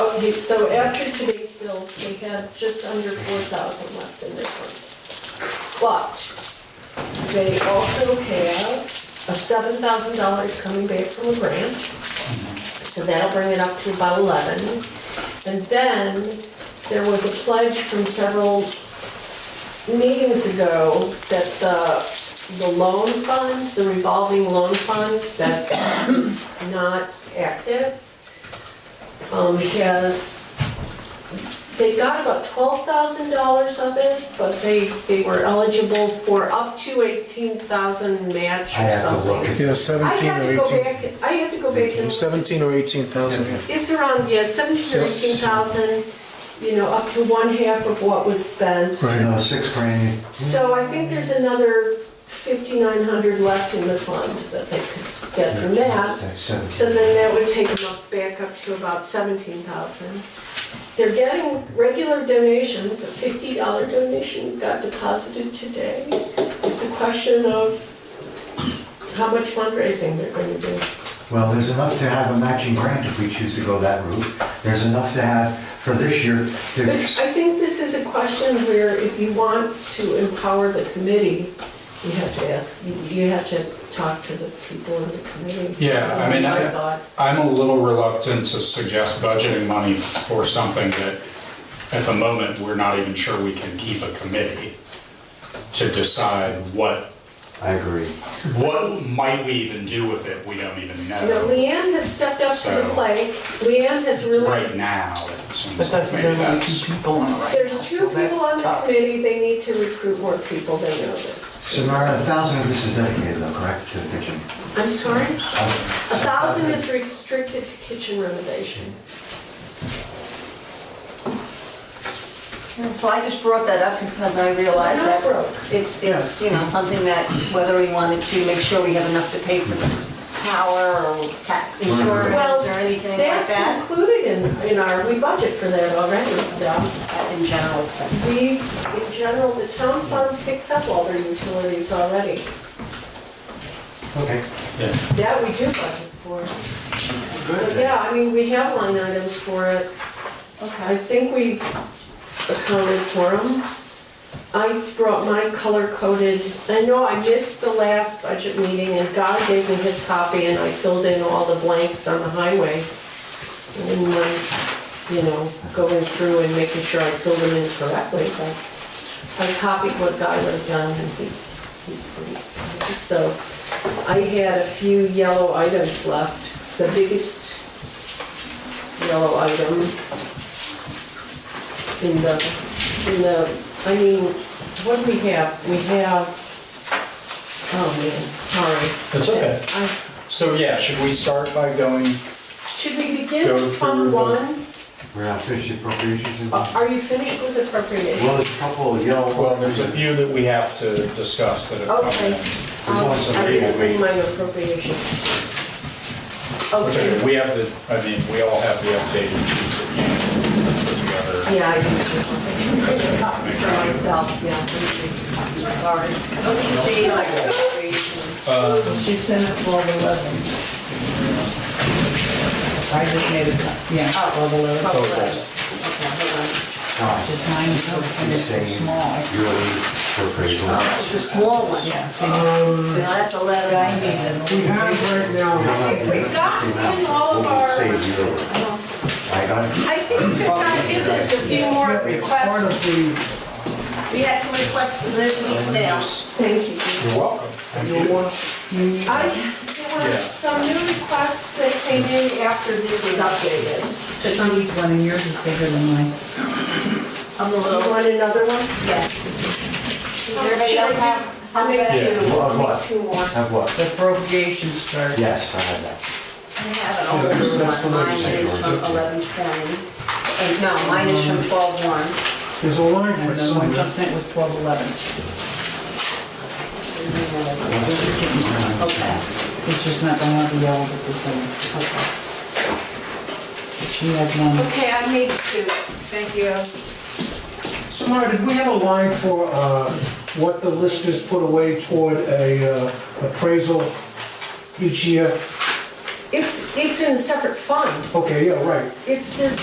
Okay, so after today's bills, we have just under four thousand left in this one. But they also have a seven thousand dollars coming back from a grant. So that'll bring it up to about eleven. And then there was a pledge from several meetings ago that the, the loan fund, the revolving loan fund that is not active, um, has, they got about twelve thousand dollars of it, but they, they were eligible for up to eighteen thousand match or I have to look something. Yeah, at I 17 have to or go 18. back, I have to go back and. look. 17 or 18,000, yeah. It's around, yeah, seventeen or Yeah. eighteen thousand, you know, up to one half of what was spent. You know, six grand, So I think there's another fifty-nine hundred left in the fund that they could get from that. that's seven. So then that would take them up, back up to about seventeen thousand. They're getting regular donations, a fifty dollar donation got deposited today. It's a question of how much fundraising they're gonna do. Well, there's enough to have a matching grant if we choose to go that route. There's enough to have for this year But to, I think this is a question where if you want to empower the committee, you have to ask, you- you have to talk to the people in the committee. Yeah, I mean, That's I- my thought. I'm a little reluctant to suggest budgeting money for something that, at the moment, we're not even sure we can keep a committee to decide what, I agree. what might we even do with it, we don't even You know, know. Leanne has stepped up to the So- plate, Leanne has Right really, now, it But seems that's like maybe another that's, two people on the right. there's two people on the committee, they need to recruit more people, they know this. So Mara, a thousand of this is dedicated though, correct, to the kitchen? I'm sorry? A thousand is restricted to kitchen renovation. So I just brought that up because I realized Not that broke. it's, it's, you know, something that whether we wanted to make sure we have enough to pay for the power or tax insurance Well, or anything like That's that, included in, in our, we budget for that already, though. uh, in general expenses. We, in general, the town fund picks up all their utilities already. Okay. That we do budget for. So, yeah, I mean, we have line items for it. I Okay. think we accounted for them. I brought my color coded, I know I missed the last budget meeting and God gave me his copy and I filled in all the blanks on the highway. And then, like, you know, going through and making sure I filled them in correctly, but I copied what God wrote down and he's, he's pleased. So I had a few yellow items left. The biggest yellow item in the, in the, I mean, what do we have? We have, oh man, sorry. Uh, That's okay. I- So yeah, should we start by going, Should we begin Go with Fund through the- One? We're out finished appropriations and, Uh, well, Are you finished with appropriation? there's a couple of yellow. well, there's a few that we have to discuss that have come Okay. in. There's only so I many didn't that we- bring my appropriation. It's okay, Okay, we have the, I mean, we all have the updated sheet that you put together. yeah, I didn't. bring my- Copy for myself, yeah. let me see. Sorry. Uh, She sent it twelve eleven. I just made it, yeah, twelve eleven. Oh, okay. Tom, Just mine is so kind you're of so saying small. you're lead Oh, appropriations. It's the small one. Yeah, see, Now, that's a letter I need. we have right now. We got in all of our- Say zero. I got it. I think since I did this, a few more It's part requests. of the, We had some requests for this week's mail. Thank you. Dee. You're welcome. Thank you you. want, you, I, there were Yeah. some new requests that came in after this was updated. Chinese one and yours is bigger than mine. I'm a You little, want another one? yes. Does everybody else have? I'll make Yeah. two. Well, what? Two more. Have what? The appropriations chart. Yes, I have that. I have an older Yeah, that's the one. Mine legacy is from ones. eleven twenty. And no, mine is from twelve one. there's a line And for the some, one she sent was twelve eleven. Okay, It's just not gonna have the yellow with the thing. okay. She had one. Okay, I made two. Thank you. Samara, did we have a line for uh, what the listers put away toward a uh, appraisal each year? It's, it's in a separate fund. Okay, yeah, right. It's, there's